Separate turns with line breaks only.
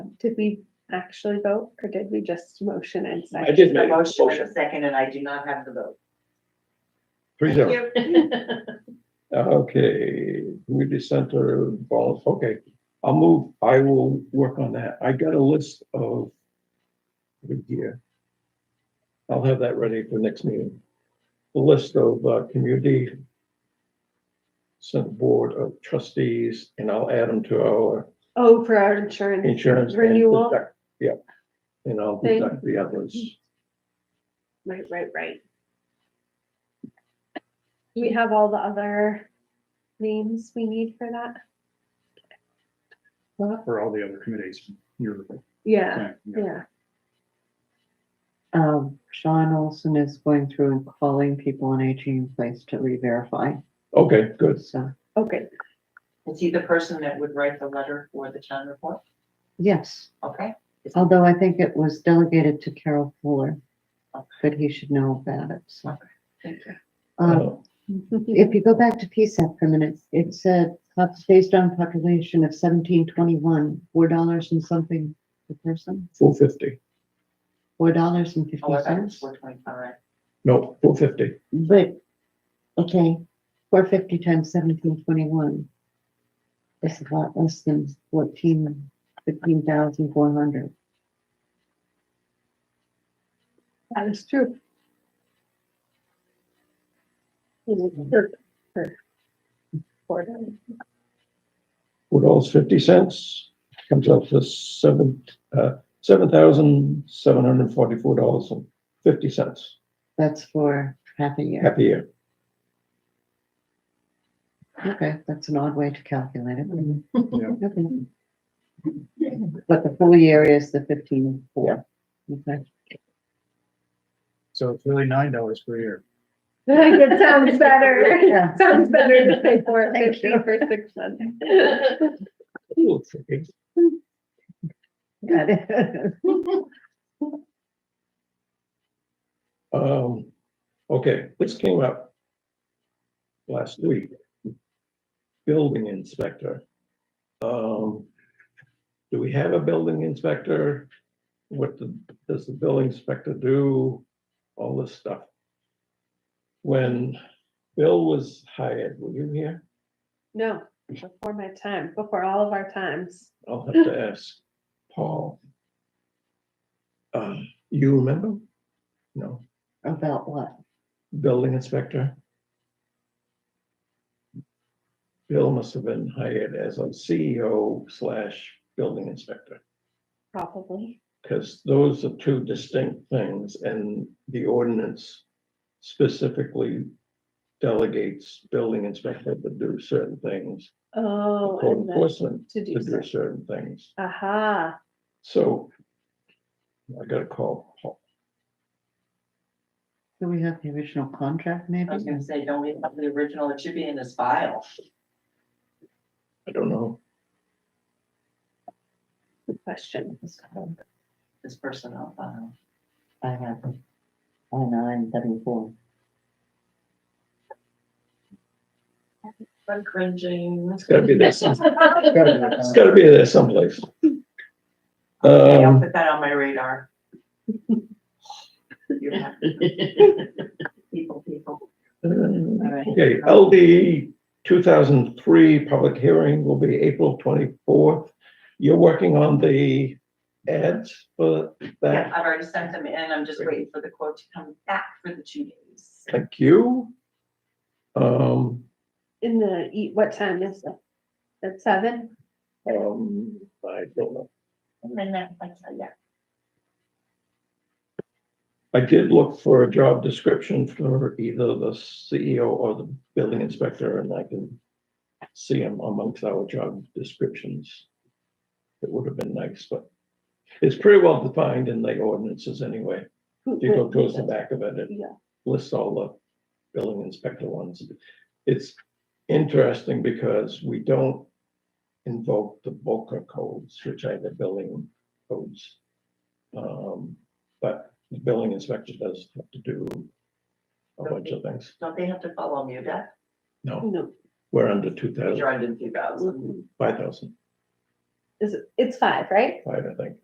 Did we actually vote or did we just motion and second?
I did
The
make a
motion and
motion.
a second, and I do not have the vote.
Three zero.
Yep.
Okay, community center balls, okay, I'll move, I will work on that, I got a list of. Good year. I'll have that ready for next meeting. The list of uh, community. Center Board of Trustees, and I'll add them to our
Oh, for our insurance.
insurance. and
Renewal?
deduct- Yeah, and I'll
Thank-
deduct the others,
Right, right, right. Do we have all the other names we need for that?
for all the other committees. You're,
Yeah,
yeah, yeah.
yeah.
Um, Sean Olson is going through and calling people on aging in place to re-verify,
okay, good,
so,
Okay,
Is he the person that would write the letter for the town report?
yes.
Okay,
Although I think it was delegated to Carol Fuller,
Okay.
but he should know about it, so.
thank you.
Um,
Uh,
if you go back to PSAP for a minute, it said, pop- based on population of seventeen twenty-one, four dollars and something per person,
four fifty,
four dollars and fifty
Oh, I thought it was
cents.
four twenty-five.
no, four fifty,
But, okay, four fifty times seventeen twenty-one. It's a lot less than fourteen, fifteen thousand four hundred.
that is true.
What else, fifty cents, comes out to seven, uh, seven thousand, seven hundred and forty-four dollars and fifty cents,
That's for half a year.
happy year.
Okay, that's an odd way to calculate it.
Yeah.
Okay. But the full year is the fifteen four. Okay.
So it's really nine dollars per year.
It sounds better.
Yeah.
Sounds better to pay for it
Thank
fifty
you.
for six months.
A little tricky.
Got it.
Um, okay, this came up last week. Building inspector. Um, do we have a building inspector? What the- does the building inspector do? All this stuff. When Bill was hired, were you here?
No, before my time, before all of our times.
I'll have to ask Paul. Uh, you remember? No,
About what?
building inspector? Bill must have been hired as a CEO slash building inspector,
Probably.
because those are two distinct things, and the ordinance specifically delegates building inspector to do certain things,
Oh,
code
and then
enforcement
to
to
do
do
so.
certain things.
Aha,
So I gotta call Paul.
Do we have the original contract
I was
maybe?
gonna say, don't we have the original? It should be in this file.
I don't know.
good question.
This personnel file.
I have it. Oh, nine, W four.
I'm cringing.
It's gotta be there. some- It's
Gotta
gotta be there someplace.
Okay, I'll
Um,
put that on my radar. You have- People, people. All right.
Okay, LD two thousand three public hearing will be April twenty-fourth. You're working on the ads for
Yeah,
that.
I've already sent them in. I'm just waiting for the quote to come back for the two days.
Thank you. Um,
In the, e- what time is it? At seven?
um, I don't know.
And then that, like, yeah.
I did look for a job description for either the CEO or the building inspector, and I can see them amongst our job descriptions. It would have been nice, but it's pretty well defined in the ordinances anyway.
Who-
If you go
who-
towards the back of it, it
Yeah.
lists all the building inspector ones. It's interesting because we don't invoke the Boca codes, which are the building codes. Um, but the building inspector does have to do a bunch of things.
Don't they have to follow MUDA?
No,
No.
we're under two thousand,
You're under two thousand.
mhm.
five thousand.
Is it, it's five, right?
five, I think.